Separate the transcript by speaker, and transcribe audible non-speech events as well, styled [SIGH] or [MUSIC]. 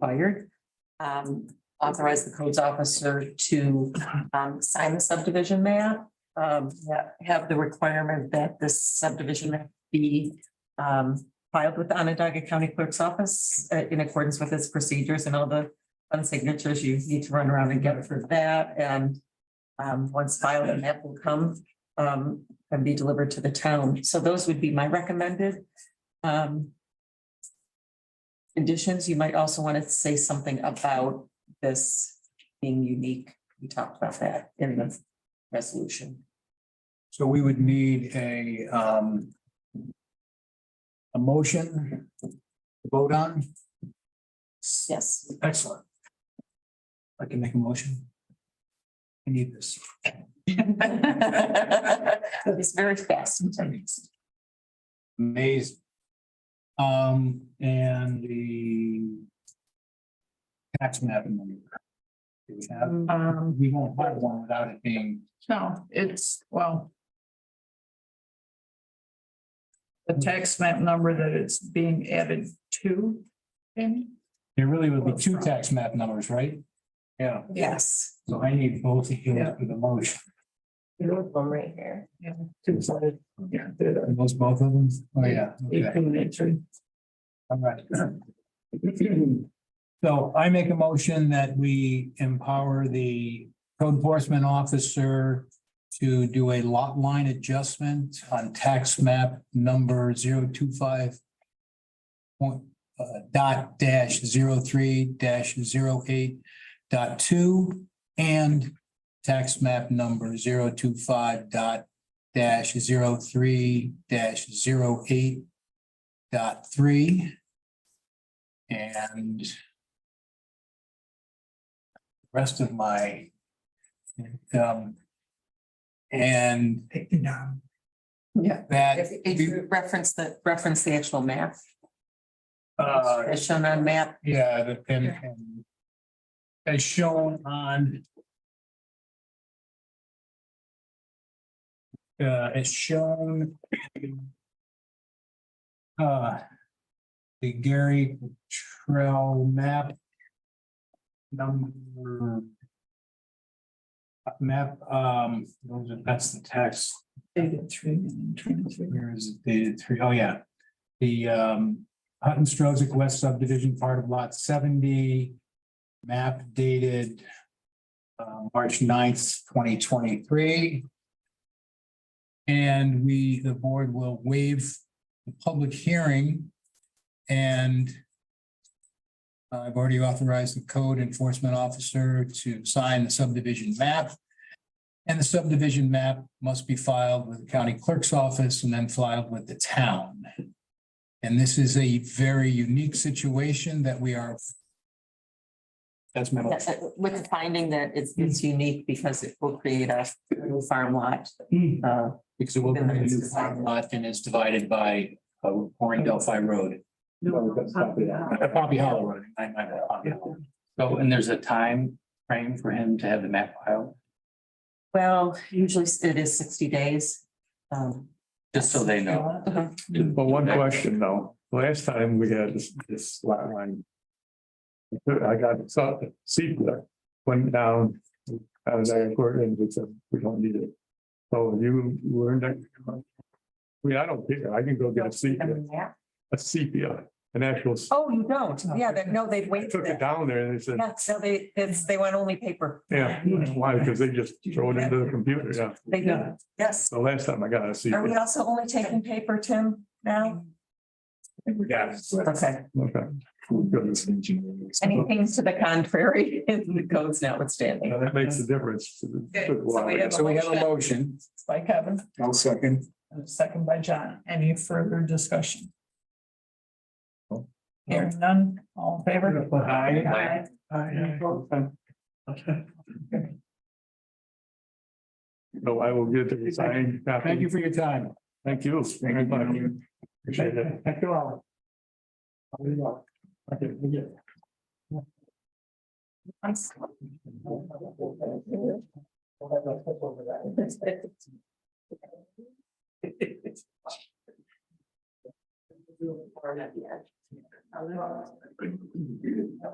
Speaker 1: required. Um, authorize the codes officer to, um, sign the subdivision map. Um, that have the requirement that this subdivision map be, um, filed with the Onondaga County Clerk's Office uh, in accordance with its procedures and all the fun signatures you need to run around and get for that. And, um, once filed, a map will come, um, and be delivered to the town. So those would be my recommended. Um, conditions, you might also want to say something about this being unique. We talked about that in the resolution.
Speaker 2: So we would need a, um, a motion to vote on.
Speaker 1: Yes,
Speaker 2: Excellent. I can make a motion. I need this.
Speaker 1: [LAUGHS] it's very fast.
Speaker 2: Amazing. Um, and the tax map. amendment. Do we have,
Speaker 3: Um,
Speaker 2: we won't have one without it being,
Speaker 3: no, it's, well. The tax map number that it's being added to. in.
Speaker 2: there really would be two tax map numbers, right? Yeah,
Speaker 1: Yes.
Speaker 2: so I need both of you for the motion.
Speaker 1: right here.
Speaker 3: Yeah, two sided, yeah, they're the-
Speaker 2: Are Those both of them? Oh, yeah. okay.
Speaker 3: equal nature.
Speaker 2: All right. So I make a motion that we empower the code enforcement officer to do a lot line adjustment on tax map number zero two five point, uh, dot dash zero three dash zero eight dot two and tax map number zero two five dot dash zero three dash zero eight dot three. And rest of my um and
Speaker 1: Yeah.
Speaker 2: that
Speaker 1: If if you reference the, reference the actual map,
Speaker 2: uh
Speaker 1: as shown on map,
Speaker 2: yeah, the- and and as shown on uh as shown uh the Gary Trail map number uh, map, um, those are- that's the text.
Speaker 3: Dated three and twenty-three.
Speaker 2: Where is it dated three? Oh, yeah. The um Hutton Strozak West subdivision part of lot seventy. Map dated uh March 9th, twenty twenty-three. And we, the board will waive the public hearing and I've already authorized the code enforcement officer to sign the subdivision map. And the subdivision map must be filed with the county clerk's office and then filed with the town. And this is a very unique situation that we are. That's my motion.
Speaker 1: uh, with the finding that it's, it's unique because it will create a new farm lot. Uh,
Speaker 2: Because it will be a new farm lot and it's divided by uh, Warren Delphi Road. Uh, Pompey Hollow Road. I- I- Pompey Hollow.
Speaker 4: So, and there's a time frame for him to have the map filed,
Speaker 1: well, usually it is sixty days. Um,
Speaker 4: just so they know.
Speaker 1: Uh-huh.
Speaker 5: Well, one question though, last time we had this, this lot line. I got, so, CEQA went down, I was like, we're in, we said, we don't need it. So you learned that. We, I don't care, I can go get a sepia, a sepia, an actual. s-
Speaker 1: Oh, you don't? Yeah, that, no, they've
Speaker 5: I
Speaker 1: waived
Speaker 5: Took it
Speaker 1: it.
Speaker 5: down there and they said,
Speaker 1: Yeah, so they, it's, they want only paper.
Speaker 5: yeah, why, because they just throw it into the computer, yeah,
Speaker 1: They do. Yes.
Speaker 5: the last time I got a
Speaker 1: Are we
Speaker 5: sepia.
Speaker 1: also only taking paper, Tim, now?
Speaker 5: Yes.
Speaker 1: Okay.
Speaker 5: Okay.
Speaker 1: Anything to the contrary, [LAUGHS] the codes notwithstanding.
Speaker 5: Now, That makes a difference.
Speaker 3: Okay, so we have-
Speaker 2: So we have a motion.
Speaker 3: By Kevin,
Speaker 2: I'll second.
Speaker 3: and a second by John. Any further discussion? Hearing none, all in favor?
Speaker 2: Aye.
Speaker 5: No, I will get the resigned copy.
Speaker 2: Thank you for your time.
Speaker 5: Thank you. very much. Appreciate it.
Speaker 2: Thank you all.